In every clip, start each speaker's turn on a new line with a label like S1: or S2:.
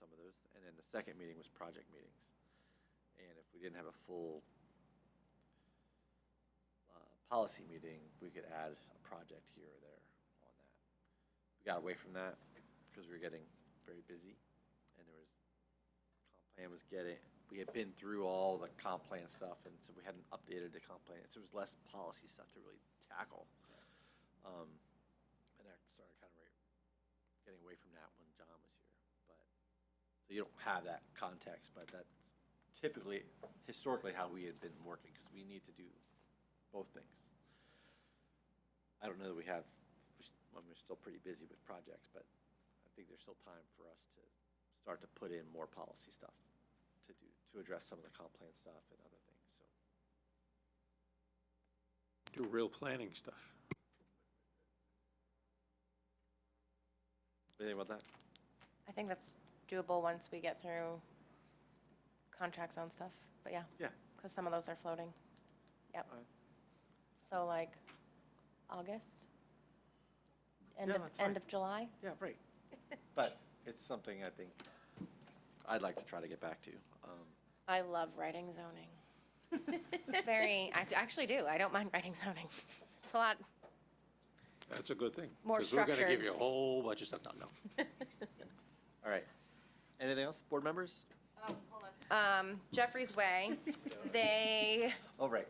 S1: those, and then the second meeting was project meetings. And if we didn't have a full uh, policy meeting, we could add a project here or there on that. We got away from that because we were getting very busy, and there was, comp plan was getting, we had been through all the comp plan stuff, and so we hadn't updated the comp plan, so there was less policy stuff to really tackle. Um, And I started kind of re- getting away from that when John was here, but, so you don't have that context, but that's typically, historically, how we had been working, because we need to do both things. I don't know that we have, we s- I mean, we're still pretty busy with projects, but I think there's still time for us to start to put in more policy stuff to do, to address some of the comp plan stuff and other things, so.
S2: do real planning stuff.
S1: Anything about that?
S3: I think that's doable once we get through contracts on stuff, but yeah.
S1: Yeah. uh,
S3: Because some of those are floating.
S1: All
S3: Yep.
S1: right.
S3: So like August? End
S1: Yeah,
S3: of,
S1: that's
S3: end
S1: fine.
S3: of July?
S1: Yeah, right. But it's something I think I'd like to try to get back to. Um,
S3: I love writing zoning. It's very, I actually do. I don't mind writing zoning. It's a lot.
S2: That's a good thing.
S3: More
S2: Because we're going to
S3: structured.
S2: give you a whole bunch of stuff, no, no.
S1: All right. Anything else, board members?
S3: Um, Jeffrey's Way, they
S1: Oh, right.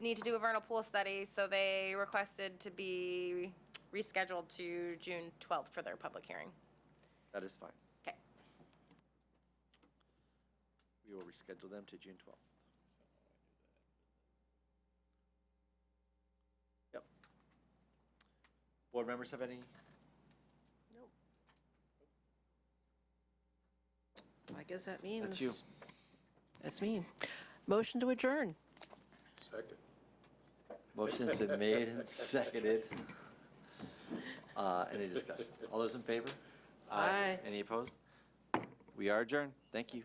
S3: need to do a vernal pool study, so they requested to be rescheduled to June 12th for their public hearing.
S1: That is fine.
S3: Okay.
S1: We will reschedule them to June 12th. Yep. Board members have any?
S4: No. I guess that means.
S1: That's you.
S4: That's me. Motion to adjourn.
S2: Second.
S1: Motion's been made and seconded. Uh, Any discussion? All those in favor?
S4: Aye.
S1: Any opposed? We are adjourned. Thank you.